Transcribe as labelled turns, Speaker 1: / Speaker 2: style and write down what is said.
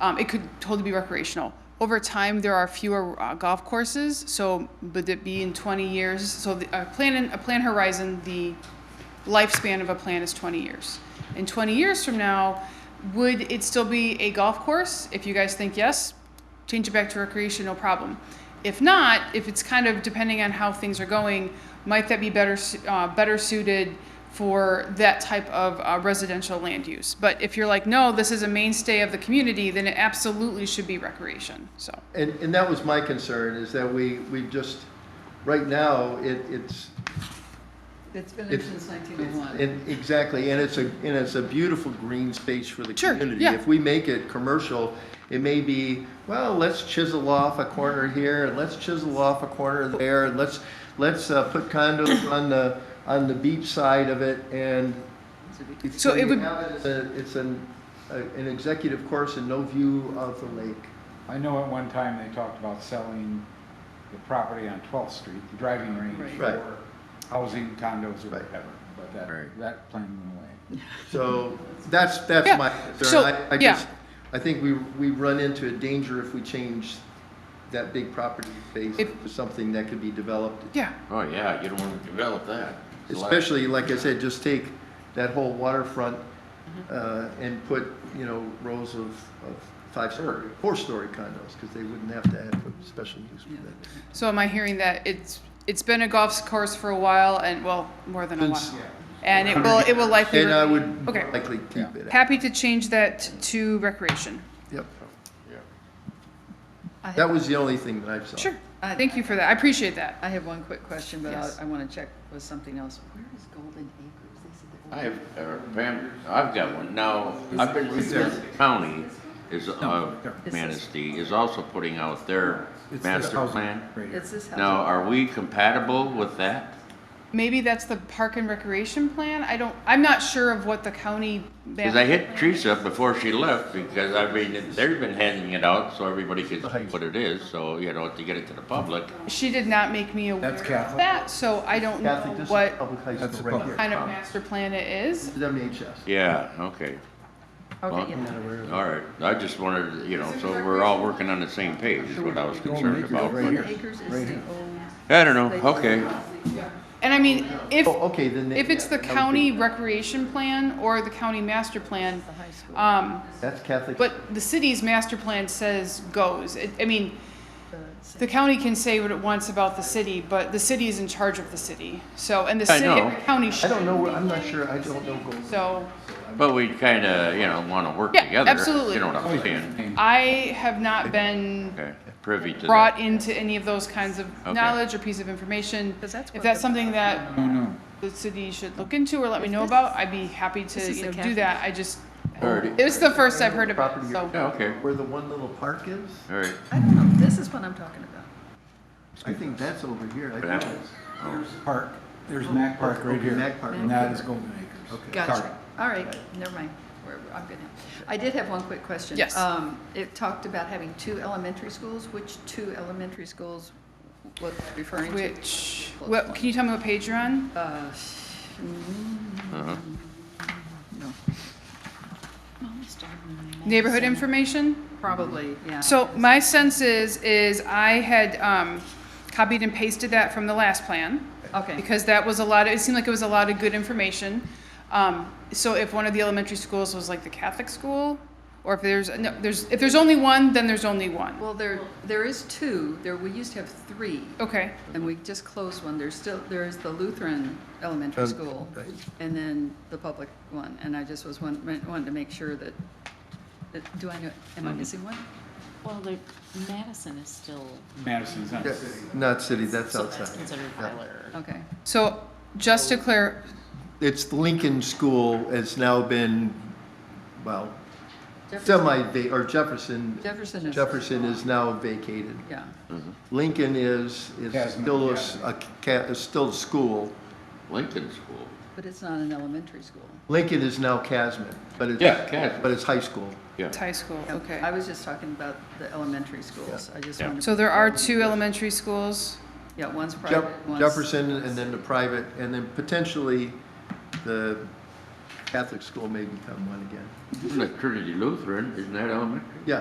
Speaker 1: Um, it could totally be recreational. Over time, there are fewer uh, golf courses, so would it be in 20 years? So the, a plan, in, a plan horizon, the lifespan of a plan is 20 years. And 20 years from now, would it still be a golf course? If you guys think yes, change it back to recreation, no problem. If not, if it's kind of depending on how things are going, might that be better su- uh, better suited for that type of uh, residential land use? But if you're like, no, this is a mainstay of the community, then it absolutely should be recreation. So
Speaker 2: And, and that was my concern, is that we, we just, right now, it, it's,
Speaker 3: It's been
Speaker 2: It's-
Speaker 3: since
Speaker 2: it's-
Speaker 3: 1901.
Speaker 2: and exactly, and it's a, and it's a beautiful green space for the
Speaker 1: Sure,
Speaker 2: community.
Speaker 1: yeah.
Speaker 2: If we make it commercial, it may be, well, let's chisel off a corner here, and let's chisel off a corner there, and let's, let's uh, put condos on the, on the beach side of it, and.
Speaker 1: So it
Speaker 2: you
Speaker 1: would-
Speaker 2: have as a- It's an, a- an executive course and no view of the lake.
Speaker 4: I know at one time they talked about selling the property on 12th Street, the driving range
Speaker 2: Right. Right.
Speaker 4: for housing condos or
Speaker 2: Right.
Speaker 4: whatever, but that,
Speaker 2: Right.
Speaker 4: that plan went away.
Speaker 2: So that's, that's
Speaker 1: Yeah,
Speaker 2: my
Speaker 1: so,
Speaker 2: concern. I- I
Speaker 1: yeah.
Speaker 2: just- I think we, we run into a danger if we change that big property base
Speaker 1: If-
Speaker 2: to something that could be developed.
Speaker 1: yeah,
Speaker 5: Oh, yeah, you don't want to develop that. It's like-
Speaker 2: Especially, like I said, just take that whole waterfront
Speaker 1: Mm-hmm.
Speaker 2: uh, and put, you know, rows of, of five-story, four-story condos, because they wouldn't have to have a special use for that.
Speaker 1: So am I hearing that it's it's been a golf course for a while and well more than a
Speaker 2: Since-
Speaker 1: while, and it will it will likely.
Speaker 2: And I would
Speaker 1: Okay.
Speaker 2: likely keep it. out.
Speaker 1: Happy to change that to recreation.
Speaker 2: Yep.
Speaker 5: Yeah.
Speaker 3: I
Speaker 2: That
Speaker 3: have-
Speaker 2: was the only thing that I saw.
Speaker 1: Sure. Thank you for that. I appreciate that.
Speaker 3: I have one quick question, but
Speaker 1: Yes.
Speaker 3: I, I want to check with something else. Where is Golden Acres? They said they're-
Speaker 5: I have, uh, Pam, I've got one. Now, I've been reading that county is, uh, Manistee is also putting out their
Speaker 4: It's this
Speaker 5: master
Speaker 4: housing
Speaker 5: plan.
Speaker 4: right here.
Speaker 3: It's this house.
Speaker 5: Now, are we compatible with that?
Speaker 1: Maybe that's the park and recreation plan. I don't. I'm not sure of what the county.
Speaker 5: Because I hit Teresa before she left, because I mean, they've been handing it out so everybody could see what it is, so, you know, to get it to the public.
Speaker 1: She did not make me aware
Speaker 4: That's
Speaker 1: of
Speaker 4: Catholic.
Speaker 1: that, so I don't know
Speaker 2: Kathy, this is
Speaker 1: what
Speaker 2: public high
Speaker 4: That's
Speaker 2: school
Speaker 4: a
Speaker 2: right
Speaker 4: public.
Speaker 2: here.
Speaker 1: kind of master plan it is.
Speaker 2: WHS.
Speaker 5: Yeah, okay, uh,
Speaker 3: Okay, yeah.
Speaker 5: all right. I just wanted, you know, so we're all working on the same page is what I was concerned about.
Speaker 4: Right here.
Speaker 3: Golden Acres is the old,
Speaker 5: I don't know, okay.
Speaker 1: And I mean, if
Speaker 2: Oh, okay, then. they-
Speaker 1: if it's the
Speaker 2: yeah, that would be-
Speaker 1: county recreation plan or the county master plan,
Speaker 3: the high school.
Speaker 1: um,
Speaker 2: That's Catholic.
Speaker 1: But the city's master plan says goes. It, I mean,
Speaker 3: the-
Speaker 1: the county can say what it wants about the city, but the city is in charge of the city. So, and the
Speaker 5: I
Speaker 1: city,
Speaker 5: know.
Speaker 1: the county
Speaker 2: I
Speaker 1: should.
Speaker 2: don't know, where- I'm not sure, I don't know Golden.
Speaker 1: So,
Speaker 5: But we kind of, you know, want to work
Speaker 1: Yeah,
Speaker 5: together.
Speaker 1: absolutely.
Speaker 5: You know what
Speaker 4: Oh,
Speaker 5: I'm saying?
Speaker 4: And
Speaker 1: I have not been
Speaker 5: Okay, privy to
Speaker 1: brought
Speaker 5: that.
Speaker 1: into any of those kinds of
Speaker 5: Okay.
Speaker 1: knowledge or piece of information.
Speaker 3: 'Cause that's
Speaker 1: If
Speaker 3: what
Speaker 1: that's
Speaker 3: the-
Speaker 1: something that
Speaker 4: No, no,
Speaker 1: the city should look into or let me know about, I'd be happy
Speaker 3: This
Speaker 1: to,
Speaker 3: is
Speaker 1: you
Speaker 3: the
Speaker 1: know, do
Speaker 3: cafe.
Speaker 1: that. I just,
Speaker 5: Alrighty.
Speaker 1: it was the first I've heard about,
Speaker 2: Property
Speaker 1: it,
Speaker 2: or-
Speaker 1: so.
Speaker 5: Yeah, okay,
Speaker 2: Where the one little park is?
Speaker 5: all right.
Speaker 3: I don't know, this is what I'm talking about.
Speaker 2: I think that's over here. I
Speaker 5: But that
Speaker 2: think
Speaker 5: was-
Speaker 4: park, there's Mac Park right
Speaker 2: Okay,
Speaker 4: here,
Speaker 2: Mac Park.
Speaker 4: and that is Golden Acres.
Speaker 2: Okay.
Speaker 4: Sorry.
Speaker 3: Gotcha. All right, never mind. We're, I'm good now. I did have one quick question.
Speaker 1: Yes.
Speaker 3: Um, it talked about having two elementary schools. Which two elementary schools was it referring to?
Speaker 1: Which, what, can you tell me what page you're on?
Speaker 3: Uh, mm,
Speaker 5: uh-huh.
Speaker 3: no,
Speaker 1: Neighborhood information?
Speaker 3: probably, yeah.
Speaker 1: So my sense is, is I had um, copied and pasted that from the last plan,
Speaker 3: Okay,
Speaker 1: because that was a lot, of- it seemed like it was a lot of good information. Um, So if one of the elementary schools was like the Catholic school, or if there's, no, there's, if there's only one, then there's only one.
Speaker 3: well, there, there is two. There, we used to have three.
Speaker 1: Okay,
Speaker 3: And we just closed one. There's still, there is the Lutheran Elementary School, and then the public one. And I just was one, wanted to make sure that, that- do I know, am
Speaker 2: Mm-hmm.
Speaker 3: I missing one?
Speaker 6: Well, the Madison is still,
Speaker 4: Madison's not.
Speaker 2: Yeah, Not city, that's
Speaker 6: so that's
Speaker 2: outside.
Speaker 6: considered Butler.
Speaker 3: Okay,
Speaker 1: so just to clear,
Speaker 2: It's the Lincoln School, it's now been, well,
Speaker 3: Jefferson.
Speaker 2: semi, va- or Jefferson,
Speaker 3: Jefferson is.
Speaker 2: Jefferson is now vacated.
Speaker 3: Yeah,
Speaker 2: Lincoln is, is
Speaker 4: Casman,
Speaker 2: still a,
Speaker 4: yeah.
Speaker 2: s- a ca- is still a school.
Speaker 5: Lincoln School.
Speaker 3: but it's not an elementary school.
Speaker 2: Lincoln is now Casman, but it's.
Speaker 5: Yeah, Casman.
Speaker 2: But it's high school.
Speaker 5: Yeah,
Speaker 1: it's high school,
Speaker 3: Yeah,
Speaker 1: okay.
Speaker 3: I was just talking about the elementary schools. I just
Speaker 5: Yeah.
Speaker 3: wanted.
Speaker 1: So there are two elementary schools,
Speaker 3: Yeah, one's
Speaker 2: Jef-
Speaker 3: private, one's.
Speaker 2: Jefferson and then the private, and then potentially the Catholic school may become one again.
Speaker 5: isn't it Trinity Lutheran, isn't that elementary?